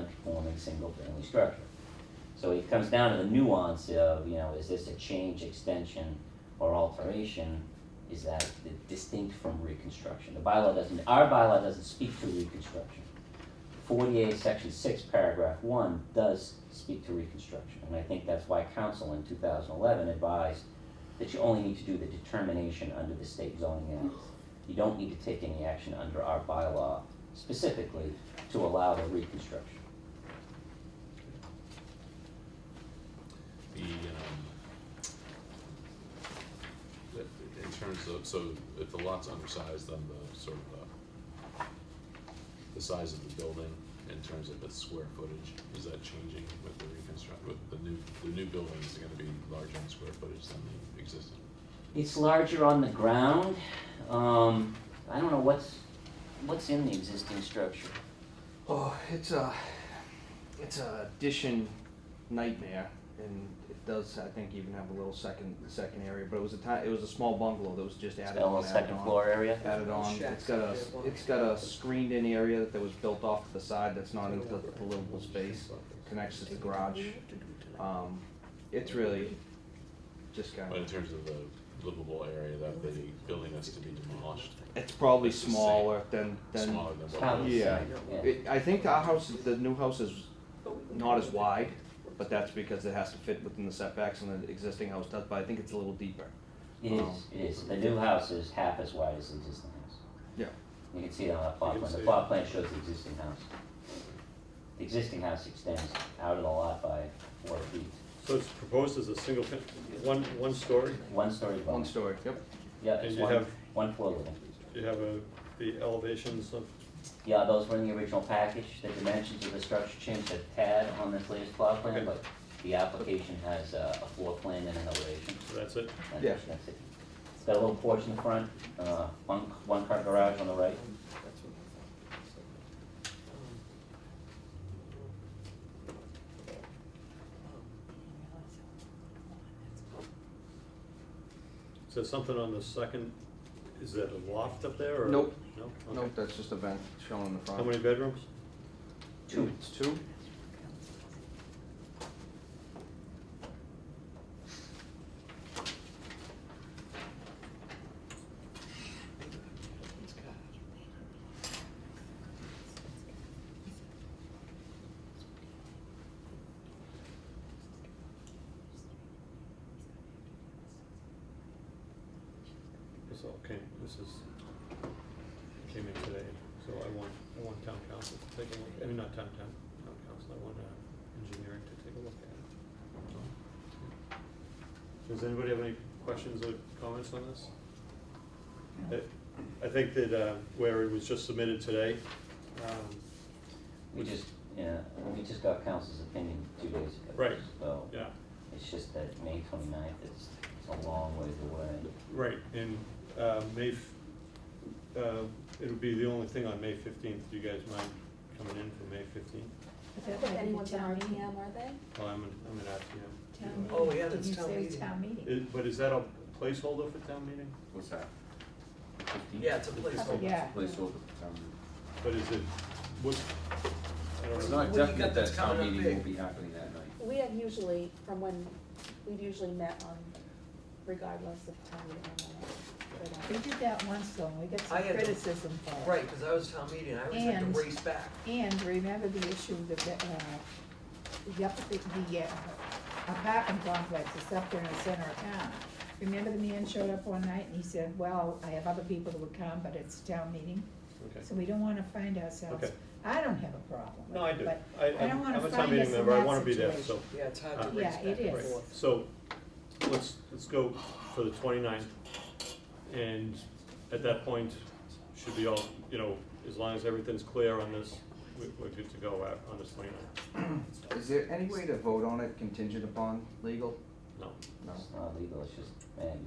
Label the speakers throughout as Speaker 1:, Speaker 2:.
Speaker 1: existing single-family structure. So it comes down to the nuance of, you know, is this a change, extension, or alteration? Is that di- distinct from reconstruction? The bylaw doesn't, our bylaw doesn't speak to reconstruction. Forty-eight, section six, paragraph one does speak to reconstruction, and I think that's why council in two thousand eleven advised that you only need to do the determination under the state zoning act. You don't need to take any action under our bylaw specifically to allow the reconstruction.
Speaker 2: the, um, the- in terms of, so if the lot's undersized, then the sort of the, the size of the building in terms of its square footage, is that changing with the reconstruct, with the new, the new building is gonna be larger in square footage than the existing?
Speaker 1: It's larger on the ground. Um, I don't know what's, what's in the existing structure.
Speaker 3: Oh, it's a, it's a addition nightmare, and it does. I think even have a little second second area, but it was a ti- it was a small bungalow that was just
Speaker 1: It's
Speaker 3: added
Speaker 1: got a
Speaker 3: on.
Speaker 1: little
Speaker 3: added
Speaker 1: second
Speaker 3: on,
Speaker 1: floor area.
Speaker 3: Added on.
Speaker 4: Shacks
Speaker 3: It's got a
Speaker 4: that they
Speaker 3: it's got a screened in area that was built off to the side that's not into the livable space. Connects to the garage. Um, it's really just kind
Speaker 2: But in
Speaker 3: of.
Speaker 2: terms of the livable area that the building that's to be demolished,
Speaker 3: It's probably
Speaker 2: It's the same.
Speaker 3: smaller than than.
Speaker 2: smaller than what
Speaker 1: Probably.
Speaker 2: was.
Speaker 3: Yeah.
Speaker 1: Yeah.
Speaker 3: It, I think our house, the new house is not as wide, but that's because it has to fit within the setbacks and the existing house does, but I think it's a little deeper.
Speaker 1: It is, it is. The new house is half as wide as the existing house.
Speaker 3: Yeah.
Speaker 1: You can see it on the plot
Speaker 2: You can
Speaker 1: plan. The
Speaker 2: see it.
Speaker 1: plot plan shows the existing house. The existing house extends out of the lot by four feet.
Speaker 5: So it's proposed as a single, fam- one, one story?
Speaker 1: One story above.
Speaker 3: One story, yep.
Speaker 1: Yeah,
Speaker 5: And
Speaker 1: it's
Speaker 5: you
Speaker 1: one,
Speaker 5: have-
Speaker 1: one floor living.
Speaker 5: You have a, the elevations of,
Speaker 1: Yeah, those were in the original package. The dimensions of the structure changed a tad on this latest plot plan,
Speaker 5: Okay.
Speaker 1: but the application has uh, a floor plan and an elevation.
Speaker 5: so that's it?
Speaker 1: That's-
Speaker 3: Yeah.
Speaker 1: that's it. It's got a little porch in the front, uh, one, one car garage on the right.
Speaker 5: Is there something on the second, is that a loft up there or?
Speaker 3: Nope.
Speaker 5: No?
Speaker 3: Nope,
Speaker 5: Okay.
Speaker 3: that's just a vent shown in the front.
Speaker 5: How many bedrooms?
Speaker 1: Two.
Speaker 3: It's two?
Speaker 5: This all came, this is, came in today, so I want, I want town council to take a look, I mean, not town, town, town council, I want uh, engineering to take a look at it. Does anybody have any questions or comments on this? I- I think that uh, where it was just submitted today, um,
Speaker 1: We just, yeah, we just got council's opinion two days ago.
Speaker 5: Right.
Speaker 1: So
Speaker 5: yeah,
Speaker 1: it's just that May twenty-ninth, it's, it's a long ways away.
Speaker 5: Right, and uh, May, f- uh, it'll be the only thing on May fifteenth, do you guys mind coming in for May fifteenth?
Speaker 6: I think
Speaker 7: Anyone's an
Speaker 6: town meeting-
Speaker 7: RTM, are they?
Speaker 5: Well, I'm, an- I'm an RTM.
Speaker 6: town
Speaker 5: You know,
Speaker 4: Oh,
Speaker 6: meeting.
Speaker 4: yeah,
Speaker 6: Did
Speaker 4: that's
Speaker 6: you
Speaker 4: town
Speaker 6: say
Speaker 4: meeting.
Speaker 6: town meeting?
Speaker 5: is- But is that a placeholder for town meeting?
Speaker 8: What's that?
Speaker 4: Yeah, it's a placeholder.
Speaker 6: Yeah.
Speaker 8: Placeholder.
Speaker 5: But is it, what, I
Speaker 8: It's
Speaker 5: don't know.
Speaker 4: What
Speaker 8: not
Speaker 4: do you got
Speaker 8: definite that
Speaker 4: that's
Speaker 8: town
Speaker 4: coming up
Speaker 8: meeting will
Speaker 4: big?
Speaker 8: be happening that night.
Speaker 7: We have usually, from when, we've usually met on regardless of time or not.
Speaker 6: We did that once though, and we got
Speaker 4: I
Speaker 6: some
Speaker 4: had-
Speaker 6: criticism for it.
Speaker 4: Right, because I was town meeting, I always had
Speaker 6: And-
Speaker 4: to race back.
Speaker 6: And remember the issue that, the, uh, the, up- the uh, apartment complex is up there in the center of town. Remember the man showed up one night and he said, well, I have other people that would come, but it's town meeting,
Speaker 5: Okay.
Speaker 6: so we don't wanna find ourselves.
Speaker 5: Okay.
Speaker 6: I don't have a problem with
Speaker 5: No, I
Speaker 6: it,
Speaker 5: do.
Speaker 6: but
Speaker 5: I,
Speaker 6: I don't
Speaker 5: I'm
Speaker 6: wanna
Speaker 5: I'm a
Speaker 6: find
Speaker 5: town meeting
Speaker 6: us in
Speaker 5: member, I
Speaker 6: that
Speaker 5: wanna be there, so.
Speaker 6: situation.
Speaker 4: Yeah, it's hard
Speaker 5: Uh,
Speaker 4: to
Speaker 6: Yeah,
Speaker 4: race back
Speaker 6: it
Speaker 4: and
Speaker 6: is.
Speaker 4: forth.
Speaker 5: So, let's, let's go for the 29th, and at that point, should be all, you know, as long as everything's clear on this, we- we're good to go out on this 29th.
Speaker 3: Is there any way to vote on it contingent upon legal?
Speaker 5: No.
Speaker 3: No,
Speaker 1: It's not legal, it's just, man,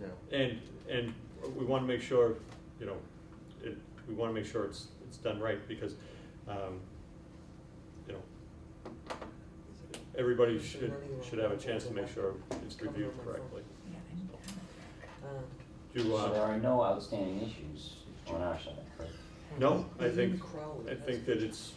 Speaker 3: yeah.
Speaker 5: And, and we wanna make sure, you know, it, we wanna make sure it's, it's done right, because, um, you know, everybody should, should have a chance to make sure it's reviewed correctly.
Speaker 6: Yeah, I'm- I'm-
Speaker 4: Um,
Speaker 5: Do,
Speaker 1: so there
Speaker 5: uh,
Speaker 1: are no outstanding issues on our side, correct?
Speaker 5: no, I think
Speaker 4: Crowley,
Speaker 5: I
Speaker 4: that's-
Speaker 5: think that it's,